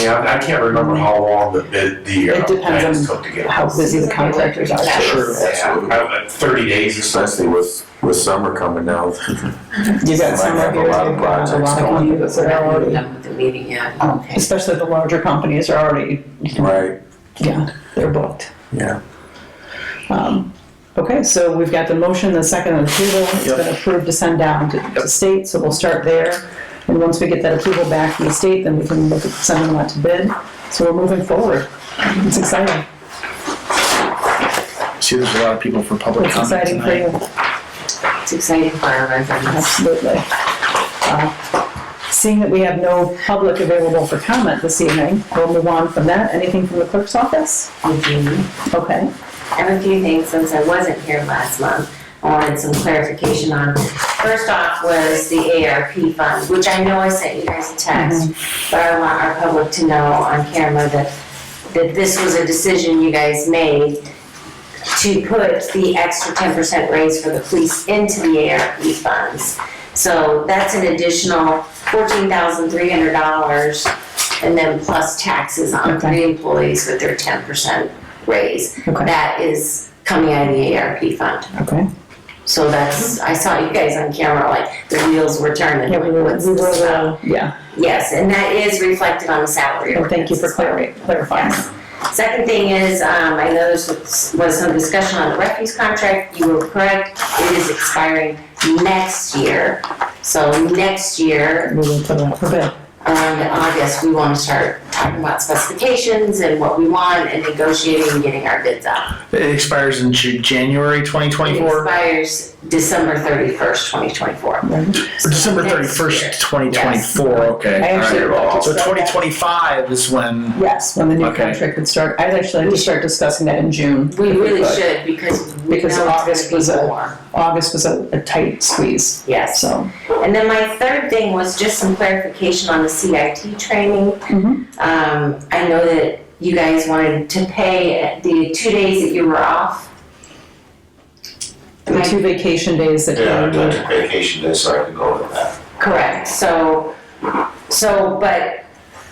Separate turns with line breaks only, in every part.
Yeah, I can't remember how long the bid, the uh,
It depends
plans
on
took to get.
how busy the contractors are.
Sure.
Yeah, I- I- thirty days or something.
Especially with, with summer coming now.
You got some
Might have
of yours,
a lot of
you've got a
projects
lot of
going.
companies that are already,
Done with the meeting yet. Okay.
especially the larger companies are already,
Right,
yeah, they're booked.
yeah.
Um, Okay, so we've got the motion, the second and approval, it's been approved to send down to to state, so we'll start there. And once we get that approval back from the state, then we can look at sending them out to bid, so we're moving forward. It's exciting,
See, there's a lot of people for public
it's
comment
exciting for
tonight.
you,
It's exciting for our residents.
absolutely. Uh, Seeing that we have no public available for comment this evening, we'll move on from that, anything from the clerk's office?
I
Okay,
have a few things since I wasn't here last month. I wanted some clarification on. First off was the ARP fund, which I know I sent you guys a text, but I want our public to know on camera that, that this was a decision you guys made to put the extra ten percent raise for the police into the ARP funds. So that's an additional fourteen thousand three hundred dollars, and then plus taxes on
Okay.
three employees with their ten percent raise.
Okay.
That is coming out of the ARP fund.
okay.
So that's, I saw you guys on camera, like, the wheels were turning.
Yeah, we were,
What's
we were,
this about?
uh, yeah,
Yes, and that is reflected on the salary.
and thank you for
ordinance as well.
clari- clarifying.
Yes. Second thing is, um, I know there was was some discussion on the refuse contract, you were correct, it is expiring next year. So next year,
We will put it out for bid.
um, in August, we wanna start talking about specifications and what we want and negotiating and getting our bids out.
It expires in J- January
It
2024 or
expires December thirty-first, twenty twenty-four.
December 31st, 2024. Okay.
I actually
all right.
wrote
So
just that.
2025 is when.
Yes, when the new
Okay.
contract would start. I'd actually like to start discussing that in June.
We
if
really
could.
should, because we know
Because
it's
August was
gonna
a-
be more,
August was a, a tight squeeze,
yes.
so.
And then my third thing was just some clarification on the CIT training.
Mhm.
Um, I know that you guys wanted to pay the two days that you were off. Am
The
I
two vacation days that
Yeah, I
you
took vacation days, so I could go with that.
correct? So, so, but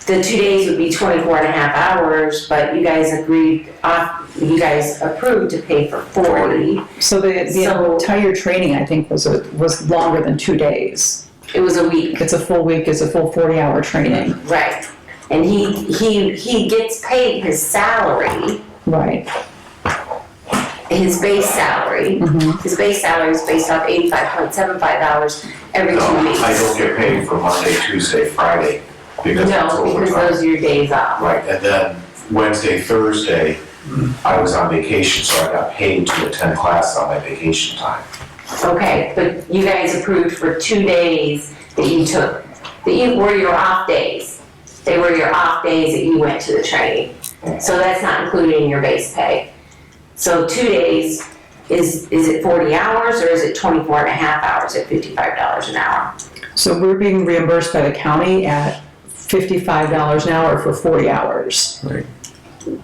the two days would be 24 and a half hours, but you guys agreed, off- you guys approved to pay for 40.
so the, the
So-
entire training, I think, was, a- was longer than two days.
It was a week.
It's a full week, it's a full forty-hour training.
Right. And he, he, he gets paid his salary,
Right.
his base salary.
Mhm.
His base salary is based off eighty-five point seven five dollars every
No,
two weeks.
I don't get paid for Monday, Tuesday, Friday, because that's
No, because
overtime.
those are your days off.
Right, and then Wednesday, Thursday, I was on vacation, so I got paid to attend class on my vacation time.
Okay, but you guys approved for two days that you took, that you were your off days. They were your off days that you went to the training. So that's not included in your base pay. So two days, is, is it forty hours or is it 24 and a half hours at fifty-five dollars an hour?
So we're being reimbursed by the county at fifty-five dollars an hour for forty hours.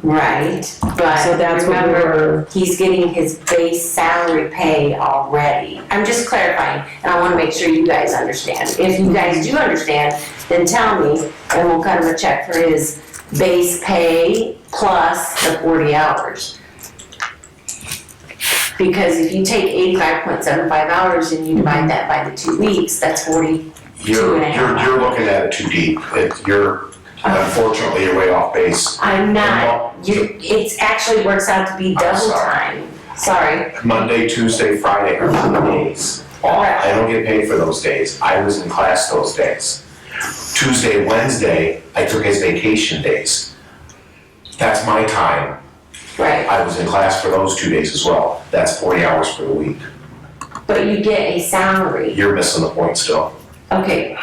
Right,
So
but
that's what we
remember,
were,
he's getting his base salary pay already. I'm just clarifying, and I wanna make sure you guys understand. If you guys do understand, then tell me, and we'll cut him a check for his base pay plus the forty hours. Because if you take eighty-five point seven five hours and you divide that by the two weeks, that's forty, Two
You're,
and a half.
you're, you're looking at it too deep, It- you're, unfortunately, you're way off base.
I'm not, you, it's actually works out to be double
sorry.
time. Sorry,
Monday, Tuesday, Friday are my days. off. I don't get paid for those days. I was in class those days. Tuesday, Wednesday, I took his vacation days. That's my time.
right.
I was in class for those two days as well. That's forty hours for the week.
But you get a salary.
You're missing the point still.
Okay.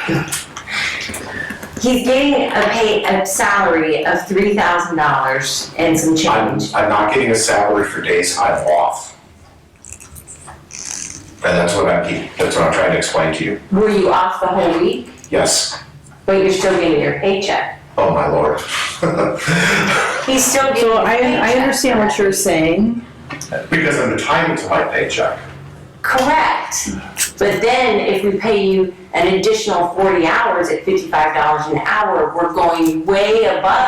He's getting a pay, a salary of three thousand dollars and some
I'm,
change.
I'm not getting a salary for days I'm off. And that's what I keep, that's what I'm trying to explain to you.
Were you off the whole week,
Yes,
but you're still getting your paycheck?
oh my lord.
He's still getting.
so
a
I, I
paycheck.
understand what you're saying,
Because I'm entitled to my paycheck.
Correct. But then if we pay you an additional forty hours at fifty-five dollars an hour, we're going way above